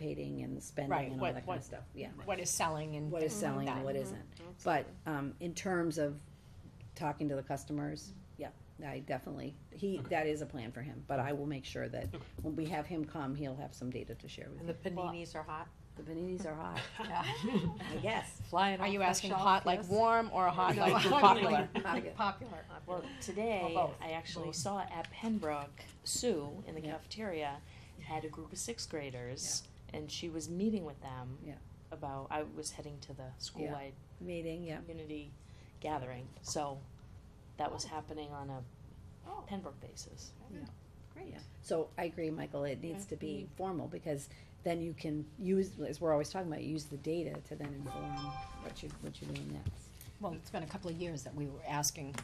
anticipating and Right, spending and all what- that kind what- Mm-hmm. of stuff, yeah. What is selling and What is things like selling and that. what isn't. But, um, in terms of talking to the customers, yeah, I definitely, he, that is a plan for him, but I will make sure that when we have him come, he'll have some data to share with And you. the paninis are hot, The paninis are hot. I guess. Flying Are off you the asking shelf, hot like yes. warm or hot No, like I mean, popular? like- Popular. Popular. Well, today, Or both. I actually saw at Pembroke, Sue, in the Yeah. cafeteria, had a group of sixth graders, and she was meeting with them. Yeah. About, I was heading to the school-wide Meeting, yeah. community gathering, so that was happening on a Oh. Pembroke basis. Yeah. So I agree, Michael, it needs to be formal, because then you can use, as we're always talking about, use the data to then inform what you, what you're doing next. Well, it's been a couple of years that we were asking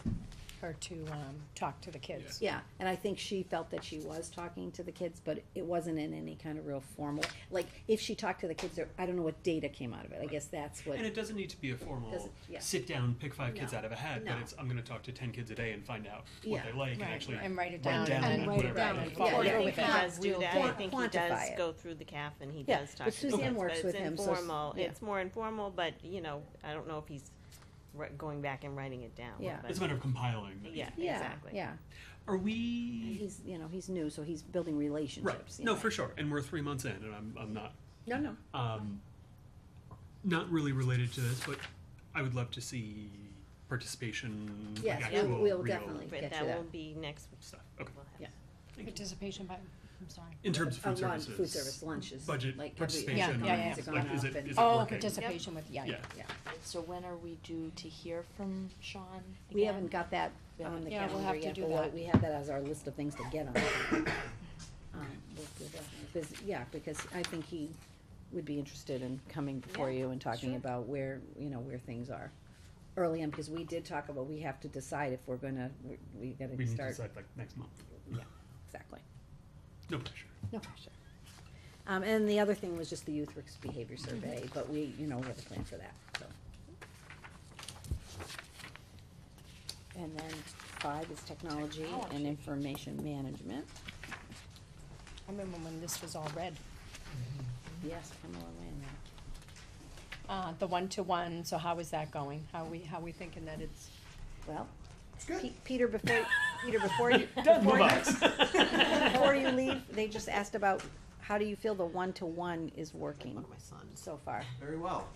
her to, um, talk to the kids. Yeah, and I think she felt that she was talking to the kids, but it wasn't in any kind of real formal, like, if she talked to the kids, there- I don't know what data came out of it, I guess that's what, And it doesn't need to be a formal Doesn't- yeah. sit down, pick five kids No. out of a hat, No. but it's I'm going to talk to 10 kids a day and find out what Yeah. they like and Right, actually and write it run down and down then whatever write it they down like. and Yeah, follow I up think with he it. does do that. I think he does quantify it. go through the calf and he Yeah, does but talk to the Suzanne kids, works but with it's him, so s- informal. yeah. It's more informal, but, you know, I don't know if he's ri- going back and writing it down. Yeah. but- It's a matter of compiling. Yeah, yeah, exactly. yeah. Are we? He's, you know, he's new, so he's building Right. relationships. you No, know. for sure. And we're three months in, and I'm I'm not No, no, um, not really related to this, but I would love to see participation. like yes, we'll, actual, we'll real definitely But get that to that. will be next week. stuff. Okay. We'll have- Yeah. Participation by, I'm sorry. In terms of A food lunch- services. food service lunches. budget like every- participation. Yeah, yeah, yeah. it's gone Like, is up it, and- is it Oh, working? participation with, yeah, yeah. Yeah. So when are we due to hear from Sean again? We haven't got that We on the Yeah, we'll calendar have to yet, do but we'll- that. we have that as our list of things to get on. Um, we'll do that. Because- Yeah, because I think he would be interested in coming before you and talking about where, you know, where things are. Early on, because we did talk about, we have to decide if we're gonna, we- we We gotta need to start, decide like next month. exactly, No pressure. no pressure. Um, and the other thing was just the youth risk behavior survey, but we, you know, we have a plan for that, so. And then five is technology and Technology. information management. I remember when this was all red. Yes, Pamela Lane. yeah. Uh, the one-to-one, so how is that going? How we, how we thinking that it's, Well, Pe- Peter, before, Peter, before you, before Move you, on. before you leave, they just asked about, how do you feel the one-to-one is working my sons. so far? Very well.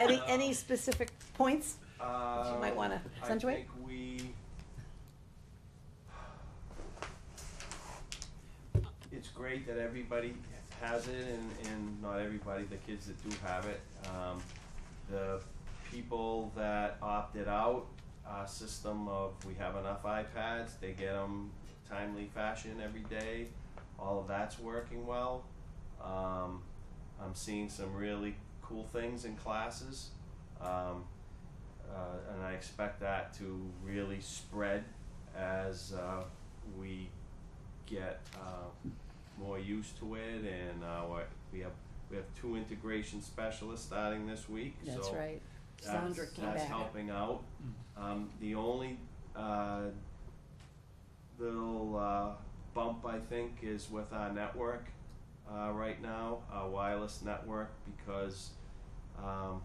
Any, any specific points? Uh, might wanna I accentuate? think we. It's great that everybody has it and, and not everybody, the kids that do have it. Um, the people that opted out, our system of we have enough iPads, they get them timely fashion every day. All of that's working well. Um, I'm seeing some really cool things in classes. Um, uh, and I expect that to really spread as uh, we get uh, more used to it. And uh, what- we have we have two integration specialists starting this week. so That's, Sandra came that's back. helping out. Um, the only uh, little uh, bump I think is with our network uh, right now, our wireless network, because um,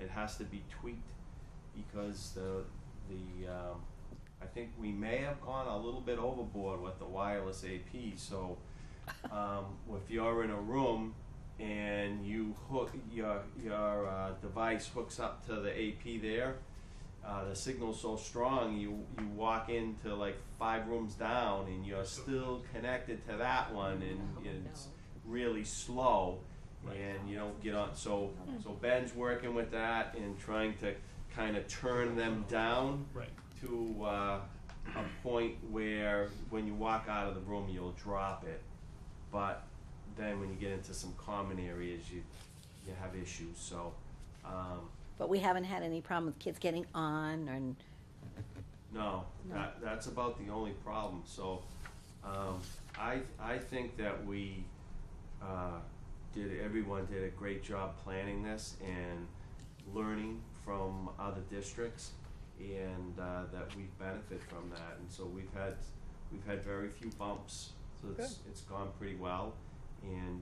it has to be tweaked because the the um, I think we may have gone a little bit overboard with the wireless AP. So um, if you're in a room and you hook your your uh, device hooks up to the AP there, uh, the signal's so strong you you walk into like five rooms down and you're still connected to that one and it's really slow and you don't get on so so Ben's working with that and trying to kind of turn them down Right. to uh, a point where when you walk out of the room you'll drop it but then when you get into some common areas you you have issues so um, But we haven't had any problem with kids getting on and, No, that, that's about the only problem, so, um, I, I think that we, uh, did, everyone did a great job planning this and learning from other districts, and, uh, that we benefit from that, and so we've had, we've had very few bumps, so it's, it's gone pretty well, and,